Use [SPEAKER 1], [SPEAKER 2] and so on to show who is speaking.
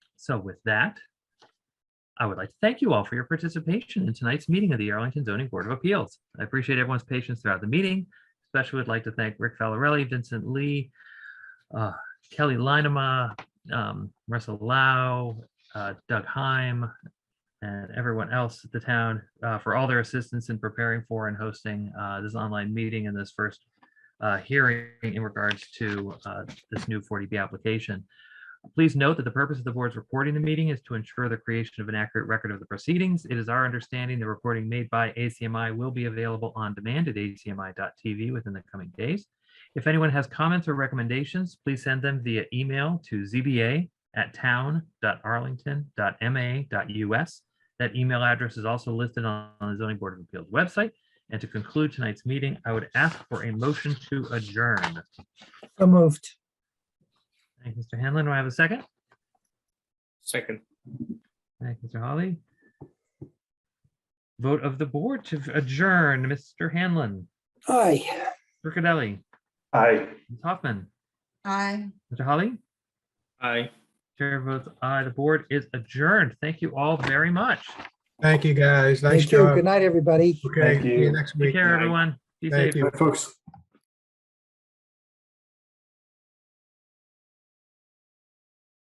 [SPEAKER 1] So with that, I would like to thank you all for your participation in tonight's meeting of the Arlington Zoning Board of Appeals. I appreciate everyone's patience throughout the meeting. Especially would like to thank Rick Valarelli, Vincent Lee, uh, Kelly Linema, um, Russell Lau, uh, Doug Heim, and everyone else at the town uh, for all their assistance in preparing for and hosting uh, this online meeting and this first uh, hearing in regards to uh, this new 40B application. Please note that the purpose of the board's recording the meeting is to ensure the creation of an accurate record of the proceedings. It is our understanding the recording made by ACMI will be available on demand at acmi.tv within the coming days. If anyone has comments or recommendations, please send them via email to zba@town.arlington.ma.us. That email address is also listed on on the zoning board of appeals website. And to conclude tonight's meeting, I would ask for a motion to adjourn.
[SPEAKER 2] So moved.
[SPEAKER 1] Thank you, Mr. Hanlon. Do I have a second?
[SPEAKER 3] Second.
[SPEAKER 1] Thank you, Mr. Holly. Vote of the board to adjourn, Mr. Hanlon,
[SPEAKER 2] Aye.
[SPEAKER 1] Riccadelli,
[SPEAKER 3] Aye.
[SPEAKER 1] Ms. Hoffman,
[SPEAKER 4] Aye.
[SPEAKER 1] Mr. Holly.
[SPEAKER 3] Aye.
[SPEAKER 1] Chair votes aye. The board is adjourned. Thank you all very much.
[SPEAKER 5] Thank you, guys. Nice
[SPEAKER 2] Thank you.
[SPEAKER 5] job.
[SPEAKER 2] Good night, everybody.
[SPEAKER 5] Okay,
[SPEAKER 3] Thank
[SPEAKER 5] see
[SPEAKER 3] you.
[SPEAKER 5] you next
[SPEAKER 1] Take
[SPEAKER 5] week.
[SPEAKER 1] care, everyone. Be
[SPEAKER 5] Thank
[SPEAKER 1] safe.
[SPEAKER 5] you.
[SPEAKER 3] folks.